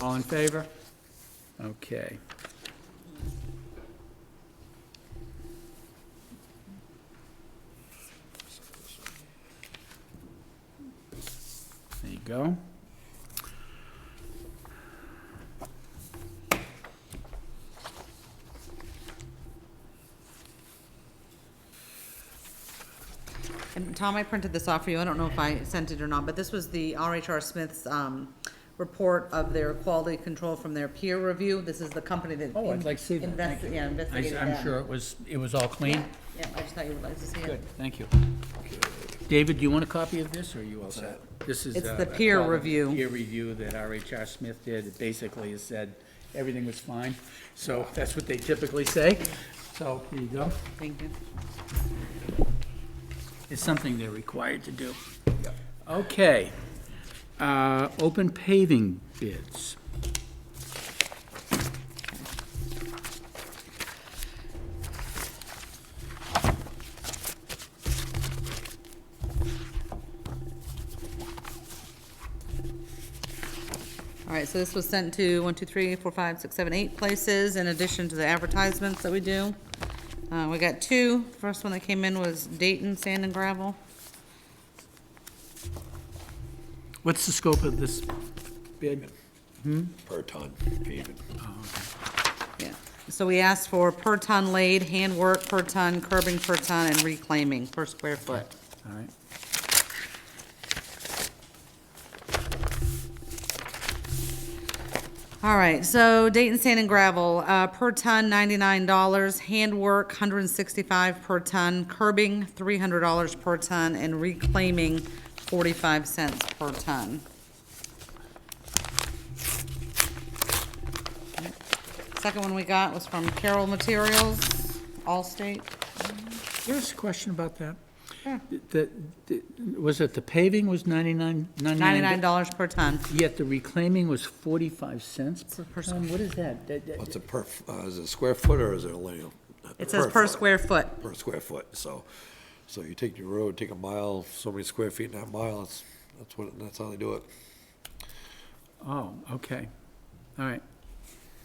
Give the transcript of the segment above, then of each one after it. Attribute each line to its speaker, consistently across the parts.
Speaker 1: All in favor? Okay. There you go.
Speaker 2: And Tom, I printed this off for you. I don't know if I sent it or not, but this was the RHR Smith's, um, report of their quality control from their peer review. This is the company that.
Speaker 1: Oh, I'd like to see that. Thank
Speaker 2: investi- Yeah,
Speaker 1: I s-
Speaker 2: investigated
Speaker 1: I'm
Speaker 2: that.
Speaker 1: sure it was, it was all clean?
Speaker 2: Yeah, yeah, I just thought you would like to see
Speaker 1: Good,
Speaker 2: it.
Speaker 1: thank you. David, do you want a copy of this, or are you all set? This is.
Speaker 2: It's
Speaker 1: uh,
Speaker 2: the
Speaker 1: a
Speaker 2: peer
Speaker 1: quality
Speaker 2: review.
Speaker 1: Peer review that RHR Smith did, it basically has said everything was fine, so that's what they typically say. So, here you go.
Speaker 2: Thank you.
Speaker 1: It's something they're required to do. Okay. Uh, Open paving bids.
Speaker 2: All right, so this was sent to one, two, three, four, five, six, seven, eight places in addition to the advertisements that we do. Uh, we got two. First one that came in was Dayton Sand and Gravel.
Speaker 1: What's the scope of this Hmm? bid?
Speaker 3: per ton paving.
Speaker 2: Yeah, so we asked for per ton laid, handwork per ton, curbing per ton, and reclaiming per square foot.
Speaker 1: All right.
Speaker 2: All right, so Dayton Sand and Gravel, uh, per ton ninety-nine dollars, handwork hundred and sixty-five per ton, curbing three hundred dollars per ton, and reclaiming forty-five cents per ton. Second one we got was from Carroll Materials, Allstate.
Speaker 1: There's a question about that. The- the- was it the paving was 99, 99?
Speaker 2: Ninety-nine dollars per ton.
Speaker 1: Yet the reclaiming was 45 cents per
Speaker 2: per
Speaker 1: ton? What is that? That- that-
Speaker 3: What's a per, uh, is it a square foot or is it a linear?
Speaker 2: It says per
Speaker 3: foot.
Speaker 2: square foot.
Speaker 3: Per square foot, so, so you take your road, take a mile, so many square feet in that mile, that's, that's what, that's how they do it.
Speaker 1: Oh, okay. All right.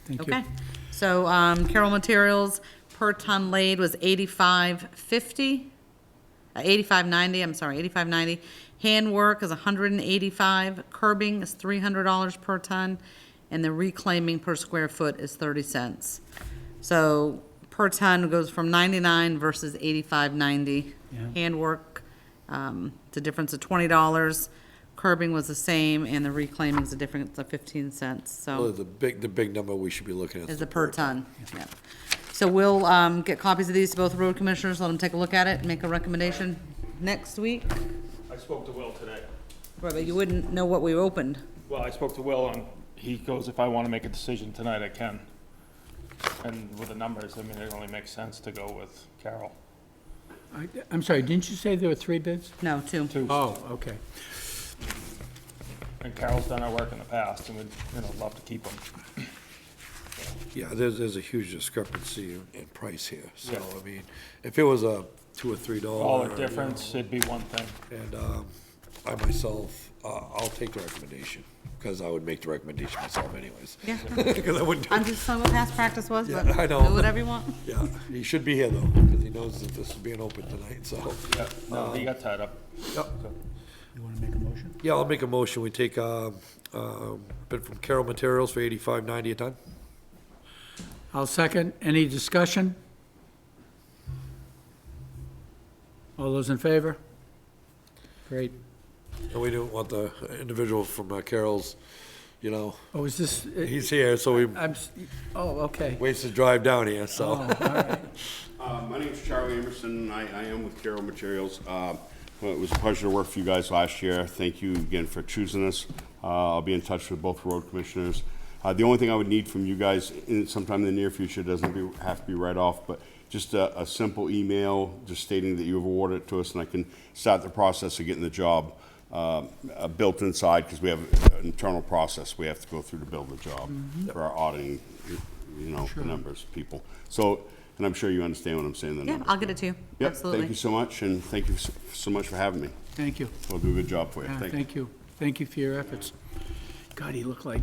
Speaker 1: Thank you.
Speaker 2: Okay, so, um, Carroll Materials per ton laid was eighty-five fifty, uh, eighty-five ninety, I'm sorry, eighty-five ninety. Handwork is hundred and eighty-five, curbing is three hundred dollars per ton, and the reclaiming per square foot is thirty cents. So, per ton goes from ninety-nine versus eighty-five ninety.
Speaker 1: Yeah.
Speaker 2: Handwork, um, the difference of twenty dollars, curbing was the same, and the reclaiming is a difference of fifteen cents, so.
Speaker 3: Well, The big, the big number we should be looking at.
Speaker 2: Is the per ton, yeah. So we'll um, get copies of these to both road commissioners, let them take a look at it, and make a recommendation next week.
Speaker 4: I spoke to Will today.
Speaker 2: Right, But you wouldn't know what we opened.
Speaker 4: Well, I spoke to Will and he goes, if I want to make a decision tonight, I can. And with the numbers, I mean, it only makes sense to go with Carol.
Speaker 1: I- I'm sorry, didn't you say there were three bids?
Speaker 2: No, two.
Speaker 4: Two,
Speaker 1: Oh, okay.
Speaker 4: and Carol's done our work in the past and we'd, you know, love to keep them.
Speaker 3: Yeah, there's, there's a huge discrepancy in price here, so,
Speaker 4: Yeah.
Speaker 3: I mean, if it was a two or three dollar.
Speaker 4: All
Speaker 3: you
Speaker 4: the
Speaker 3: know,
Speaker 4: difference, it'd be one thing.
Speaker 3: And, um, I myself, uh, I'll take the recommendation, because I would make the recommendation myself anyways.
Speaker 2: Yeah.
Speaker 3: Because I wouldn't do
Speaker 2: I'm just telling what past practice was, but
Speaker 3: Yeah, I
Speaker 2: do
Speaker 3: know.
Speaker 2: whatever you want.
Speaker 3: Yeah, he should be here though, because he knows that this is being open tonight, so.
Speaker 4: Yeah, no, he got tied up.
Speaker 3: Yep.
Speaker 4: So,
Speaker 1: You want to make a motion?
Speaker 3: Yeah, I'll make a motion, we take, um, um, bid from Carroll Materials for eighty-five ninety a ton.
Speaker 1: I'll second. Any discussion? All those in favor? Great.
Speaker 3: And we don't want the individual from uh, Carroll's, you know,
Speaker 1: Oh, is this,
Speaker 3: he's here, so he
Speaker 1: I'm, s- oh, okay.
Speaker 3: wastes his drive down here,
Speaker 1: Oh,
Speaker 3: so.
Speaker 1: all right.
Speaker 5: Uh, My name's Charlie Emerson, I, I am with Carroll Materials. Uh, well, It was a pleasure to work for you guys last year. Thank you again for choosing us. Uh, I'll be in touch with both road commissioners. Uh, The only thing I would need from you guys in- sometime in the near future, doesn't be- have to be right off, but just a, a simple email, just stating that you have awarded it to us, and I can start the process of getting the job um, uh, built inside, because we have an internal process we have to go through to build the job for our auditing, you know, the numbers, people. So, and I'm sure you understand what I'm saying, the
Speaker 2: Yeah,
Speaker 5: numbers.
Speaker 2: I'll get it to you,
Speaker 5: Yep, Thank you
Speaker 2: absolutely.
Speaker 5: so much, and thank you so- so much for having me.
Speaker 1: Thank you.
Speaker 5: We'll do a good job for you.
Speaker 1: Yeah,
Speaker 5: Thank you.
Speaker 1: Thank you. Thank you for your efforts. God, he looked like